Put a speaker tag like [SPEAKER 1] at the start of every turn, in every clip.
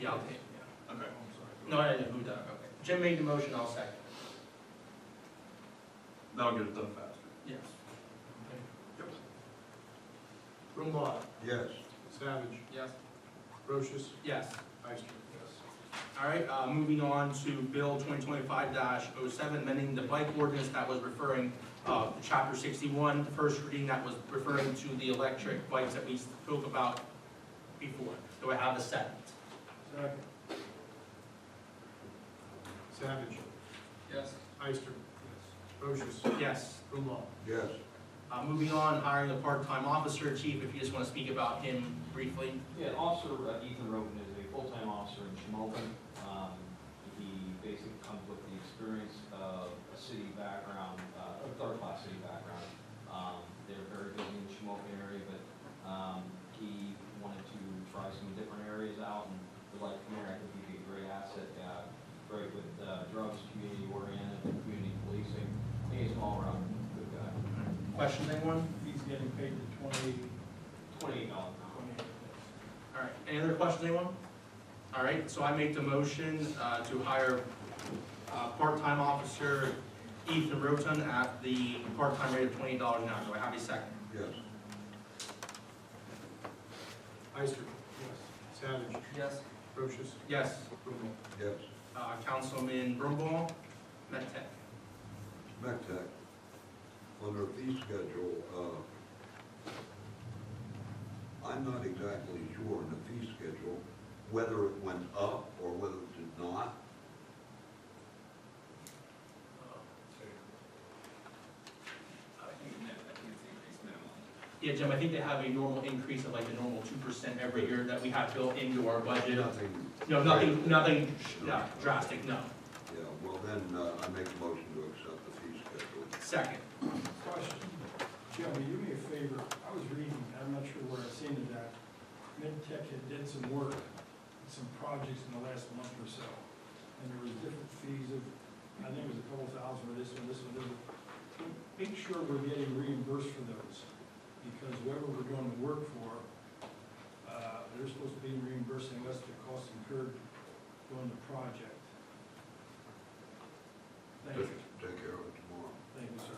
[SPEAKER 1] Yeah, I'll take it, yeah.
[SPEAKER 2] Oh,
[SPEAKER 3] Okay.
[SPEAKER 1] No, I didn't, who done?
[SPEAKER 3] Okay.
[SPEAKER 1] Jim made the motion, I'll second.
[SPEAKER 3] That'll get it done faster.
[SPEAKER 1] Yes.
[SPEAKER 3] Yep.
[SPEAKER 2] Brumbault,
[SPEAKER 4] Yes.
[SPEAKER 2] Savage,
[SPEAKER 1] Yes.
[SPEAKER 2] Brochus,
[SPEAKER 1] Yes.
[SPEAKER 2] Ister.
[SPEAKER 1] All right, uh, moving on to Bill twenty twenty-five 7 amending the bike ordinance that was referring, uh, to chapter sixty-one, the first reading that was referring to the electric bikes that we spoke about before. Do I have a second?
[SPEAKER 2] Second. Savage,
[SPEAKER 1] Yes.
[SPEAKER 2] Ister. Brochus,
[SPEAKER 1] Yes.
[SPEAKER 2] Brumbault.
[SPEAKER 4] Yes.
[SPEAKER 1] Uh, moving on, hiring a part-time officer, chief, if you just wanna speak about him briefly.
[SPEAKER 5] Yeah, Officer uh, Ethan Roden is a full-time officer in Shamokin. Um, He basically comes with the experience of a city background, uh, a third-class city background. Um, They're very busy in the Shamokin area, but um, he wanted to try some different areas out and would like to come here. I think he'd be a great asset, uh, great with uh, drugs, community oriented, community policing. I think He's an all-around good guy.
[SPEAKER 1] Questions, anyone?
[SPEAKER 2] He's getting paid the twenty.
[SPEAKER 5] Twenty-eight dollars an hour.
[SPEAKER 1] All right, any other questions, anyone? All right, so I make the motion uh, to hire uh, part-time officer Ethan Roten at the part-time rate of twenty dollars an hour. Do I have a second?
[SPEAKER 4] Yes.
[SPEAKER 2] Ister. Yes. Savage,
[SPEAKER 1] Yes.
[SPEAKER 2] Brochus,
[SPEAKER 1] Yes,
[SPEAKER 2] Brumbault.
[SPEAKER 4] Yes.
[SPEAKER 1] Uh, Councilman Brumball, Met Tech.
[SPEAKER 4] METAC, on their fee schedule, uh, I'm not exactly sure on the fee schedule, whether it went up or whether it did not.
[SPEAKER 1] Yeah, Jim, I think they have a normal increase of like the normal two percent every year that we have built into our budget.
[SPEAKER 4] Nothing.
[SPEAKER 1] No, nothing, nothing no, drastic, no.
[SPEAKER 4] Yeah, well then, uh, I make a motion to accept the fee schedule.
[SPEAKER 1] Second.
[SPEAKER 6] Question, Jim, will you do me a favor? I was reading, I'm not sure where I seen it at. MedTech had did some work, some projects in the last month or so. And there was different fees of, I think it was a couple thousand for this one, this one, this one. Make sure we're getting reimbursed for those, because whoever we're doing the work for, uh, they're supposed to be reimbursing us the cost incurred doing the project. Thank you,
[SPEAKER 4] Take- Take care of it tomorrow.
[SPEAKER 6] thank you, sir.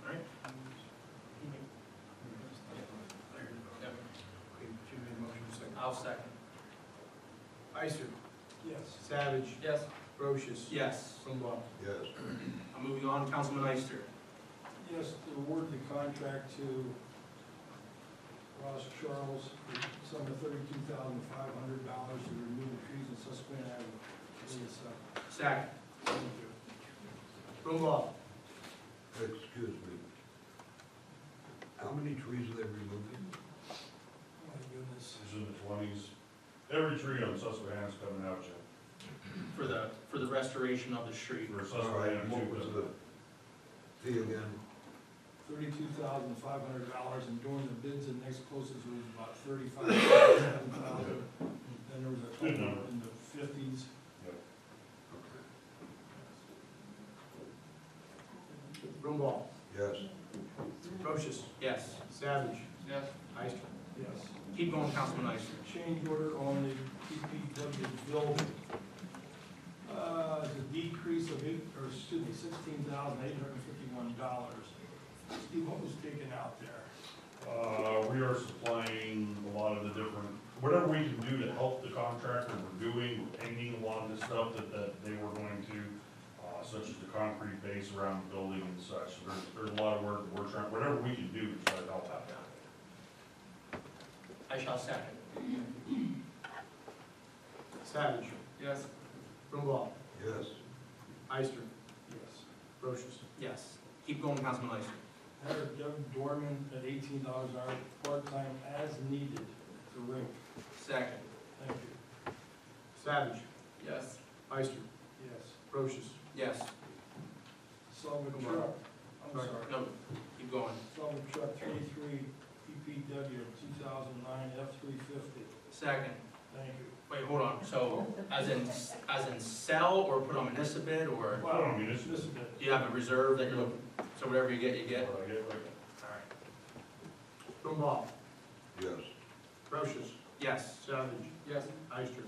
[SPEAKER 1] All right.
[SPEAKER 2] Okay, Jim made a motion, second.
[SPEAKER 1] I'll second.
[SPEAKER 2] Ister,
[SPEAKER 6] Yes.
[SPEAKER 2] Savage,
[SPEAKER 1] Yes.
[SPEAKER 2] Brochus,
[SPEAKER 1] Yes.
[SPEAKER 2] Brumbault.
[SPEAKER 4] Yes.
[SPEAKER 1] I'm moving on, Councilman Ister.
[SPEAKER 6] Yes, to award the contract to Ross Charles for some thirty-two thousand five hundred dollars to remove the trees in Susquehanna Avenue. Please, uh,
[SPEAKER 1] Second.
[SPEAKER 2] Brumbault.
[SPEAKER 4] Excuse me. How many trees are they removing?
[SPEAKER 6] oh My goodness.
[SPEAKER 7] This is in the twenties. Every tree on Susquehanna's coming out, Jim.
[SPEAKER 1] For the, for the restoration of the street.
[SPEAKER 7] For
[SPEAKER 4] All
[SPEAKER 7] Susquehanna,
[SPEAKER 4] right, what
[SPEAKER 7] too,
[SPEAKER 4] was
[SPEAKER 7] but-
[SPEAKER 4] the fee again?
[SPEAKER 6] Thirty-two thousand five hundred dollars and during the bids, the next closest was about thirty-five thousand. Then there was a
[SPEAKER 7] Good
[SPEAKER 6] couple
[SPEAKER 7] number.
[SPEAKER 6] in the fifties.
[SPEAKER 4] Okay.
[SPEAKER 2] Brumbault.
[SPEAKER 4] Yes.
[SPEAKER 2] Brochus,
[SPEAKER 1] Yes.
[SPEAKER 2] Savage,
[SPEAKER 1] Yes.
[SPEAKER 2] Ister.
[SPEAKER 6] Yes.
[SPEAKER 1] Keep going, Councilman Ister.
[SPEAKER 6] change order on the DPW building. Uh, it's a decrease of eight, or excuse me, sixteen thousand eight hundred and fifty-one dollars. Steve, what was taken out there?
[SPEAKER 7] Uh, we are supplying a lot of the different, whatever we can do to help the contractor, we're doing, we're painting a lot of the stuff that, that they were going to, uh, such as the concrete base around the building and such. There's, there's a lot of work, that we're trying, whatever we can do to try to help out.
[SPEAKER 1] I shall second.
[SPEAKER 2] Savage,
[SPEAKER 1] Yes.
[SPEAKER 2] Brumbault.
[SPEAKER 4] Yes.
[SPEAKER 2] Ister,
[SPEAKER 6] Yes.
[SPEAKER 2] Brochus.
[SPEAKER 1] Yes. Keep going, Councilman Ister.
[SPEAKER 6] Hire Doug Dorman at eighteen dollars an hour, part-time as needed, to ring.
[SPEAKER 1] Second.
[SPEAKER 6] Thank you.
[SPEAKER 2] Savage,
[SPEAKER 1] Yes.
[SPEAKER 2] Ister,
[SPEAKER 6] Yes.
[SPEAKER 2] Brochus.
[SPEAKER 1] Yes.
[SPEAKER 6] Sullivan
[SPEAKER 2] Come on.
[SPEAKER 6] Truck, I'm
[SPEAKER 2] Sorry.
[SPEAKER 6] sorry.
[SPEAKER 1] No, keep going.
[SPEAKER 6] Sullivan Truck thirty-three, DPW, two thousand nine, F three fifty.
[SPEAKER 1] Second.
[SPEAKER 6] Thank you.
[SPEAKER 1] Wait, hold on. So as in, as in sell or put on municipal or
[SPEAKER 7] I don't mean, it's,
[SPEAKER 6] Dismiss it.
[SPEAKER 1] do you have a reserve that you're looking, so whatever you get, you
[SPEAKER 7] I
[SPEAKER 1] get? All
[SPEAKER 7] get like
[SPEAKER 1] right.
[SPEAKER 2] Brumbault.
[SPEAKER 4] Yes.
[SPEAKER 2] Brochus,
[SPEAKER 1] Yes.
[SPEAKER 2] Savage.
[SPEAKER 1] Yes.
[SPEAKER 2] Ister.